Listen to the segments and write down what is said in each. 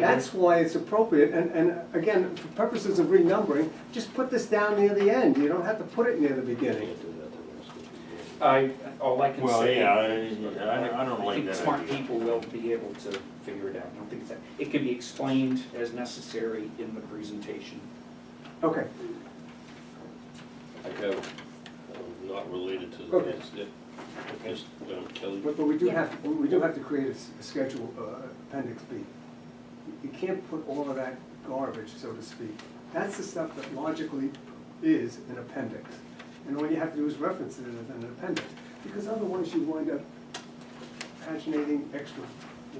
That's why it's appropriate, and, and again, for purposes of renumbering, just put this down near the end, you don't have to put it near the beginning. I, all I can Well, say. yeah, I- I, I don't like think that smart idea. people will be able to figure it out. I don't think it's that, it can be explained as necessary in the presentation. Okay, I have, um, not related to the Okay. next, yeah, just, um, Kelly, but, but we do Yeah. have, we do have to create a s- a schedule, uh, appendix B. You can't put all of that garbage, so to speak, that's the stuff that logically is an appendix. And all you have to do is reference it as an appendix, because otherwise you wind up paginating extra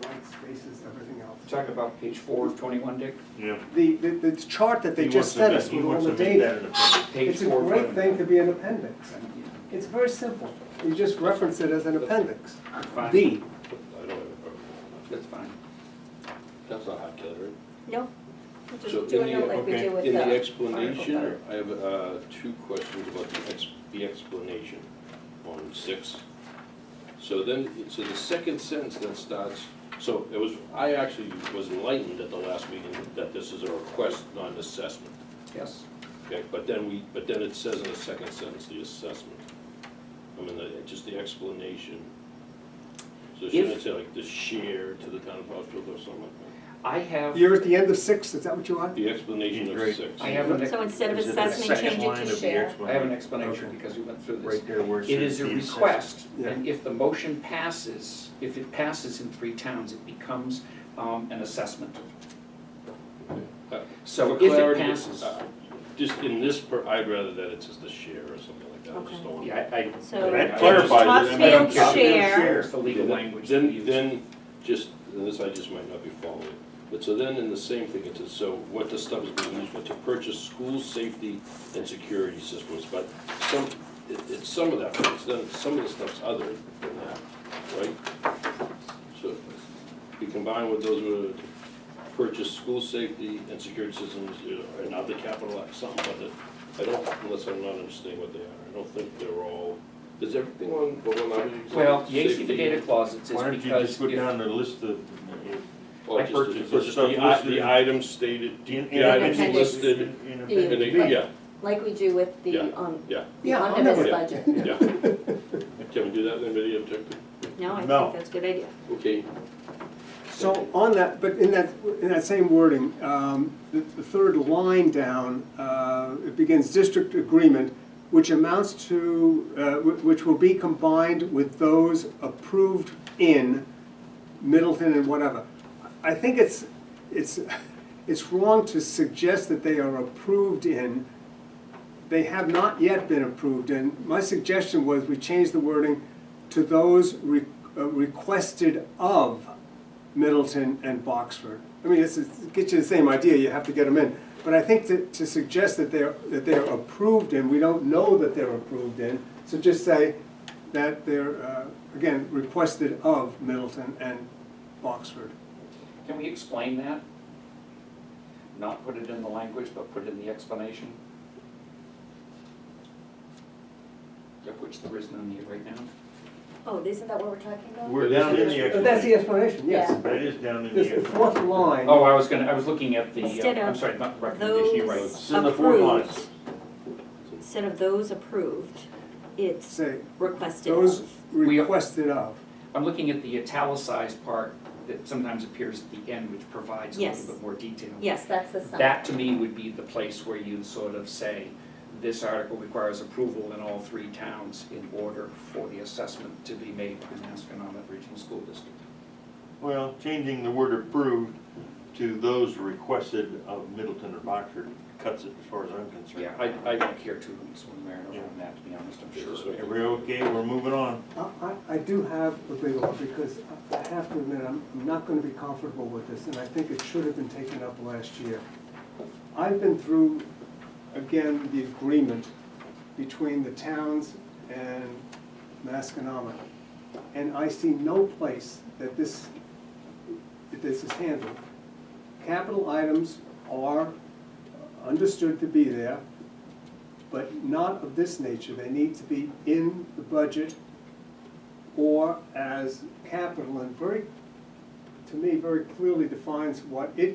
white spaces, everything else. Talk about page four of twenty-one, Dick. Yeah. The, the, the chart that they He just wants sent to us make- he with all wants the to make that data, an appendix. Page it's a four of great thing to 21. be an appendix. Yeah, It's very simple. You just reference it as an appendix. fine. B, I don't have a problem with that. That's fine. That's not hot, Kelly, right? No, we're So in just doing the- it uh, like we okay, do with the. In the article explanation, letter. I have, uh, two questions about the ex, the explanation on six. So then, so the second sentence that starts, so it was, I actually was enlightened at the last meeting that this is a request, not an assessment. Yes. Okay, but then we, but then it says in the second sentence, the assessment. I mean, the, just the explanation. So shouldn't it say like the share to the town of Foxborough or something like I have, you're at the end of six, is that what you that? want? The explanation of Great. six. I have, an- So instead of Is it the assessment, second change it line of to the share. I have an explanation? explanation Okay. because we went through this. Right there where it It is says a the request, Yeah. and if the motion passes, if it passes in three towns, it becomes um, an assessment. Uh, So for if it clarity, passes, uh, Just in this, per- I'd rather that it says the share or something like that, I just Okay. don't want. yeah, I, I. So I- I That clarifies it, and I don't Topsfield care. share, It's the legal Yeah, language that we Then, use. then, just, and this I just might not be following, but so then in the same thing, it says, so what the stuff is being used for, to purchase school safety and security systems, but some, it, it's some of that, but it's then, some of the stuff's other than that, right? So, be combined with those who purchase school safety and security systems, you know, and other capital, X, something, but I don't, unless I'm not understanding what they are, I don't think they're all, is everything on, well, when I was examining Well, the safety- data clause, it says Why don't you because just go if, down the list of, Or I just purchased the- just the the, stuff i- the listed. items stated, in- in the items appendix. listed, in Yeah. and they, appendix B? yeah, like we do with Yeah. the, um, yeah, the Yeah, I'll omnibus never- budget. yeah. Can we do that in a video objective? No, I No. think that's a good idea. Okay, So on that, but in that, in that same wording, um, the, the third line down, uh, it begins district agreement, which amounts to, uh, wh- which will be combined with those approved in Middleton and whatever. I think it's, it's, it's wrong to suggest that they are approved in. They have not yet been approved, and my suggestion was we change the wording to those re- uh, requested of Middleton and Boxford. I mean, it's, it gets you the same idea, you have to get them in. But I think to, to suggest that they're, that they're approved in, we don't know that they're approved in, so just say that they're, uh, again, requested of Middleton and Boxford. can we explain that? Not put it in the language, but put it in the explanation? Of which there is none here right now. Oh, isn't that what we're talking about? We're down in the But that's the explanation, explanation. yes. Yeah. That is down in the It's the fourth explanation. line. Oh, I was gonna, I was looking at the, Instead uh, I'm of sorry, not the recommendation, you're right. those- It's in the fourth line. Approved. Instead of those approved, it's Say, requested those of. We- requested of. I'm looking at the italicized part that sometimes appears at the end, which provides a Yes. little bit more detail. Yes, that's the sum. That to me would be the place where you sort of say, this article requires approval in all three towns in order for the assessment to be made by Masconomet Regional School District. Well, changing the word approved to those requested of Middleton or Boxford cuts it as far as I'm concerned. Yeah, I, I don't care too much one way or another on that, to be honest, I'm sure. Are we okay? We're moving on. I, I- I do have a big one, because I- I have to admit, I'm I'm not gonna be comfortable with this, and I think it should have been taken up last year. I've been through, again, the agreement between the towns and Masconama, and I see no place that this, that this is handled. Capital items are understood to be there, but not of this nature. They need to be in the budget or as capital and very, to to me, very clearly defines what it